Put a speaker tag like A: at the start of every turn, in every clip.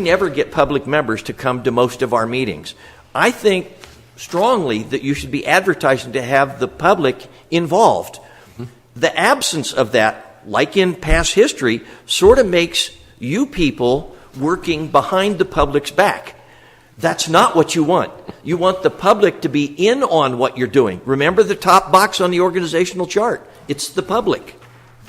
A: never get public members to come to most of our meetings. I think strongly that you should be advertising to have the public involved. The absence of that, like in past history, sort of makes you people working behind the public's back. That's not what you want. You want the public to be in on what you're doing. Remember the top box on the organizational chart it's the public,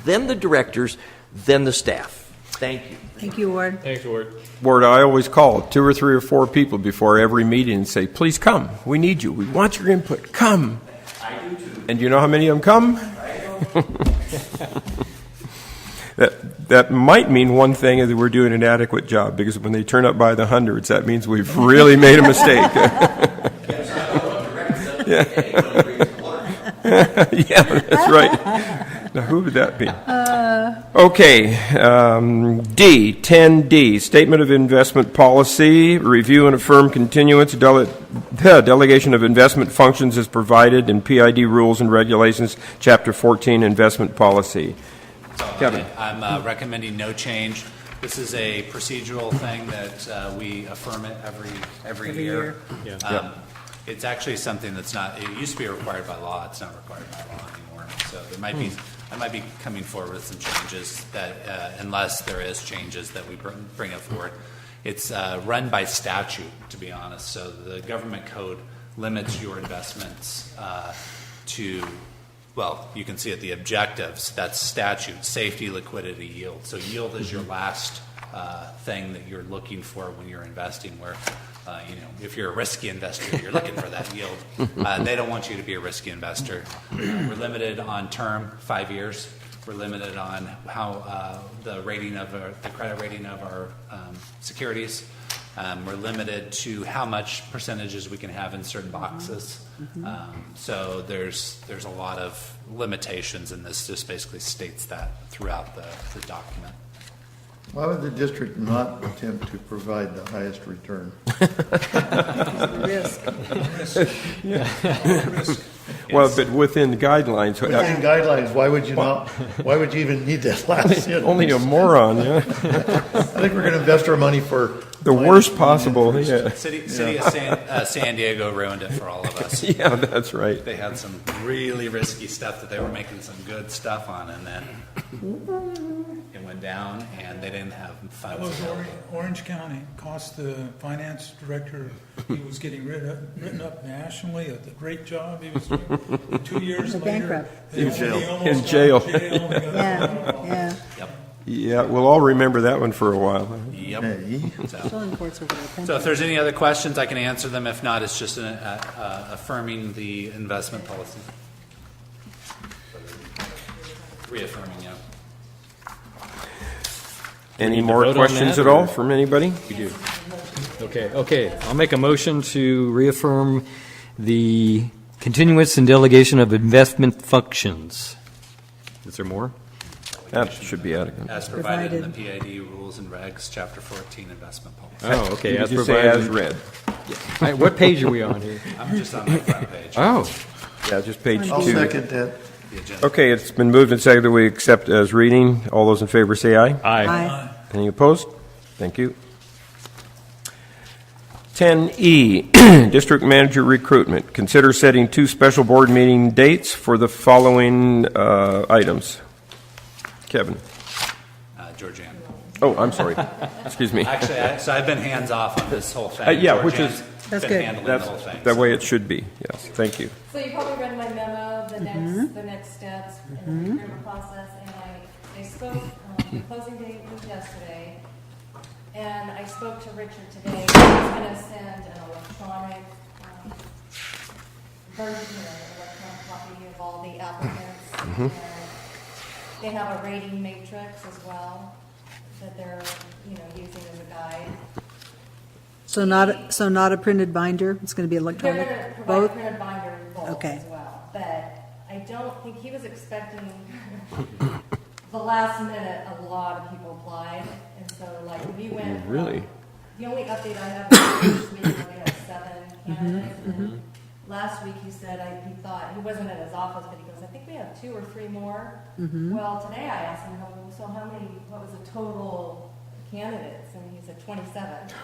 A: then the directors, then the staff. Thank you.
B: Thank you, Ward.
C: Thanks, Ward.
D: Ward, I always call two or three or four people before every meeting and say, please come. We need you. We want your input. Come. I do too. And you know how many of them come? That, that might mean one thing is that we're doing an adequate job because when they turn up by the hundreds, that means we've really made a mistake. yeah, that's right. Now, who would that be? Okay, um, D, 10D, Statement of Investment Policy, review and affirm continuance, dele- delegation of investment functions is provided in PID Rules and Regulations, Chapter 14, Investment Policy. Kevin.
E: I'm uh, recommending no change. This is a procedural thing that uh, we affirm it every, every year. Um, It's actually something that's not, it used to be required by law, it's not required by law anymore. So there might be, I might be coming forward with some changes that, uh, unless there is changes that we bring bring up forward. It's uh, run by statute, to be honest, so the government code limits your investments uh, to well, you can see at the objectives, that's statute, safety, liquidity, yield. So yield is your last uh, thing that you're looking for when you're investing, where, uh, you know, if you're a risky investor, you're looking for that yield. Uh, They don't want you to be a risky investor. Uh, We're limited on term, five years. We're limited on how uh, the rating of, our- the credit rating of our um, securities. Um, We're limited to how much percentages we can have in certain boxes. Um, So there's, there's a lot of limitations, and this just basically states that throughout the, the document.
F: Why would the district not attempt to provide the highest return?
B: Risk.
D: Well, but within the guidelines. uh,
F: Within guidelines, why would you not, why would you even need that last sentence?
D: Only a moron, yeah.
F: I think we're going to invest our money for.
D: The worst possible, yeah.
E: City, City of San, uh, San Diego ruined it for all of us.
D: Yeah, that's right.
E: They had some really risky stuff that they were making some good stuff on, and then it went down, and they didn't have
G: That
E: funds
G: was Or-
E: available.
G: Orange County, cost the finance director, he was getting rid of, written up nationally, a great job he was doing. Two years
B: Went
G: later.
B: bankrupt.
G: they
F: In
G: al-
F: jail.
G: they almost
D: In
G: got
D: jail.
G: jail, they got-
B: Yeah, yeah.
E: Yep,
D: Yeah, we'll all remember that one for a while.
E: yep.
F: Hey,
E: So-
B: Still in courts over there.
E: So if there's any other questions, I can answer them. If not, it's just an, uh, uh, affirming the investment policy. Reaffirming, yeah.
D: Any
C: need to
D: more
C: vote on
D: questions
C: that,
D: at all
C: or-
D: from anybody?
C: We do. Okay, okay. I'll make a motion to reaffirm the continuance and delegation of investment functions. Is there more?
D: That should be adequate.
E: As provided in the PID rules and regs, chapter 14, investment policy.
C: Oh, okay.
D: You
C: As
D: just say as
C: provided.
D: read.
C: All right, What page are we on here?
E: I'm just on my front page, uh,
C: Oh,
D: Yeah, just page
F: I'll
D: two.
F: second that.
E: the agenda.
D: Okay, it's been moved and seconded that we accept as reading. All those in favor say aye.
C: aye.
B: Aye.
D: Any opposed? Thank you. 10E, E, District Manager Recruitment. Consider setting two special board meeting dates for the following uh, items. Kevin.
E: Uh, Georgiana.
D: Oh, I'm sorry. Excuse me.
E: Actually, I- so I've been hands-off on this whole thing.
D: Uh, yeah, which is-
E: Georgiana's
B: That's
E: Been
B: good.
E: handling the
D: That's
E: whole thing.
D: the way it should be. Yes, thank you.
H: So you probably read my memo, the next, the next steps in the procurement process, and I, I spoke, um, the closing date was yesterday, and I spoke to Richard today, he's gonna send an electronic, um, version, an electronic copy of all the applicants. and They have a rating matrix as well, that they're, you know, using as a guide.
B: So not, so not a printed binder? It's going to be
H: They're
B: electronic?
H: gonna provide
B: Both?
H: printed binder in bulk
B: Okay.
H: as well, but I don't think, he was expecting, the last minute, a lot of people applied, and so like, we went. from-
D: Really?
H: The only update I have is this week, we only have seven
B: Mm-hmm,
H: candidates, and then last week he said, I, he thought, he wasn't at his office, but he goes, I think we have
B: Mm-hmm.
H: two or three more. Well, today I asked him, so how many, what was the total candidates, and he's at 27.